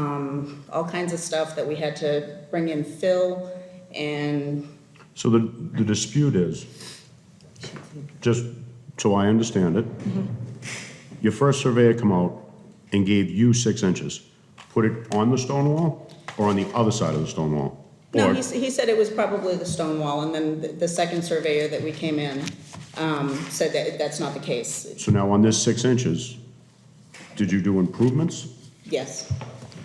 um, all kinds of stuff that we had to bring in fill and So the, the dispute is, just so I understand it, Mm-hmm. your first surveyor come out and gave you six inches. Put it on the stone wall or on the other side of the stone wall? No, Or- he, s- he said it was probably the stone wall, and then the, the second surveyor that we came in, um, said that that's not the case, So now on this six inches, did you do improvements? yes.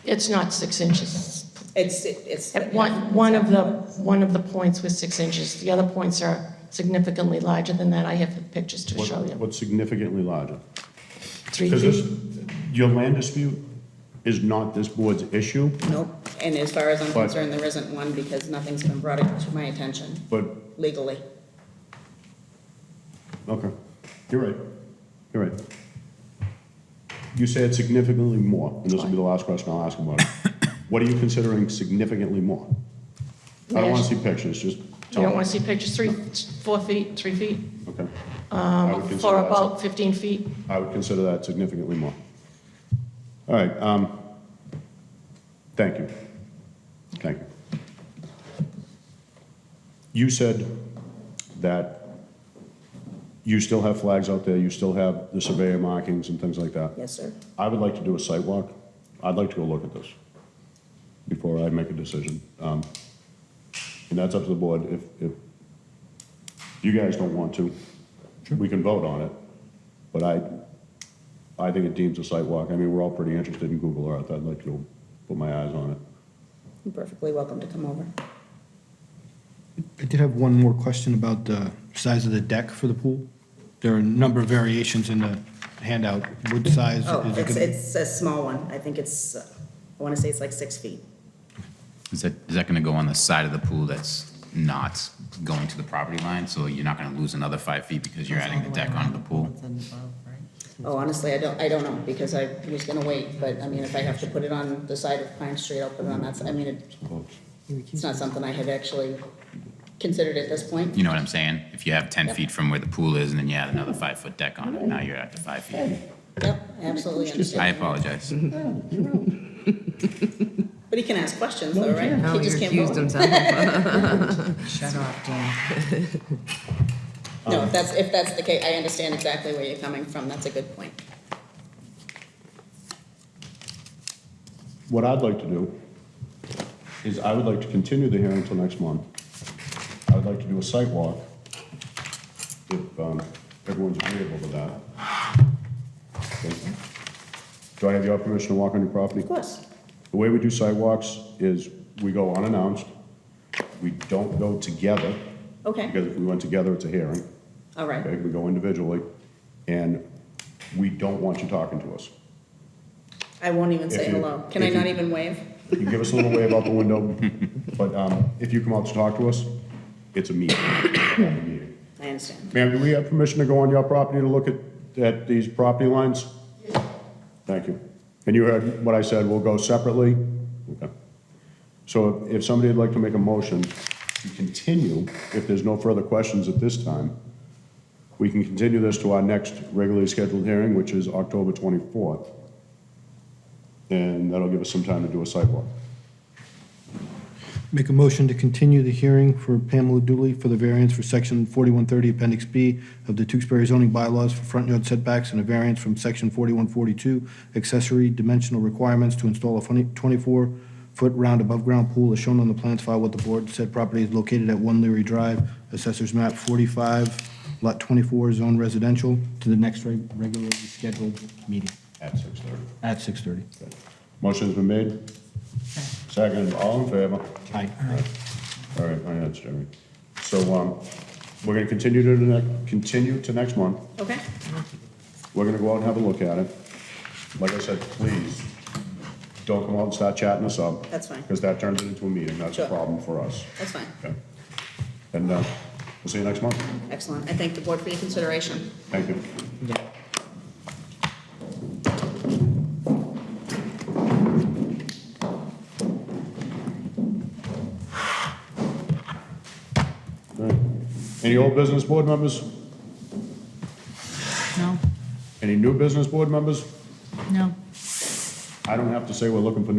It's not six inches. It's, it's. At One, one of the, one of the points was six inches. The other points are significantly larger than that. I have pictures to What- show you. What's significantly larger? Three Because this, feet. your land dispute is not this board's issue, Nope, and as far as I'm But- concerned, there isn't one, because nothing's been brought to my attention but, legally. okay, you're right, you're right. You said significantly more, and this will be the last question I'll ask about it. What are you considering significantly more? I don't wanna see pictures, just You tell me. don't want to see pictures, three, four feet, three feet, Okay. I would consider Um, for that sig- about 15 feet. I would consider that significantly more. All right, um, thank you. Thank you. You said that you still have flags out there, you still have the surveyor markings and things like that. Yes, sir. I would like to do a site walk. I'd like to go look at this before I make a decision. Um, And that's up to the board. If, if you guys don't want to, we can vote on it. But I, I think it deems a site walk. I mean, we're all pretty interested in Google Earth. I'd like to go put my eyes on it. You're perfectly welcome to come over. I did have one more question about the size of the deck for the pool. There are a number of variations in the handout. What size Oh, is it it's, gonna be? it's a small one, I think it's, uh, I wanna say it's like six feet. Is that, is that gonna go on the side of the pool that's not going to the property line? So you're not gonna lose another five feet because you're adding the deck onto the pool? Oh, honestly, I don't, I don't know, because I was gonna wait, but, I mean, if I have to put it on the side of Pine Street, I'll put it on that, side. I mean, it, it's not something I had actually considered at this point. You know what I'm saying? If you have ten feet from where the pool is and then you add another five-foot deck on it, now you're at the five feet. Yep, absolutely I understand. apologize. But he can ask questions though, right? No, He he just can't recused vote. himself. Shut up, Dan. No, if that's, if that's the case, I understand exactly where you're coming from, that's a good point. What I'd like to do is I would like to continue the hearing until next month. I would like to do a site walk, if um, everyone's agreeable to that. Okay. Do I have your permission to walk on your property? Of course. The way we do sidewalks is we go unannounced. We don't go together, Okay, because if we went together, it's a hearing. all right, Okay, we go individually, and we don't want you talking to us. I won't even say If you- hello. Can I if you- not even wave? You give us a little wave out the window, but um, if you come out to talk to us, it's a meeting. It's not a meeting. I understand. Ma'am, do we have permission to go on your property to look at, at these property lines? Thank you. And you heard what I said, we'll go separately? Okay. So if if somebody would like to make a motion to continue, if there's no further questions at this time, we can continue this to our next regularly scheduled hearing, which is October 24th. And that'll give us some time to do a sidewalk. Make a motion to continue the hearing for Pamela Dooley for the variance for section 4130, appendix B of the Tewksbury zoning bylaws for front yard setbacks and a variance from section 4142, accessory dimensional requirements to install a 24-foot round above-ground pool as shown on the plans filed with the board. Said property is located at 1 Leary Drive, assessors map 45, lot 24, zone residential, to the next reg- regularly scheduled meeting At 6:30. at 6:30. Motion's been made. Second, all in favor? Aye. All right, my head's Jeremy. So, um, we're gonna continue to the next, continue to next month. Okay, We're gonna go out and have a look at it. Like I said, please, don't come out and start chatting us up. That's fine. Because that turns it into a meeting, that's a Sure. problem for us. that's fine. Okay. And, uh, we'll see you next month. Excellent. I thank the board for your consideration. Thank you. All right. Any old business board members? No, Any new business board members? no. I don't have to say we're looking for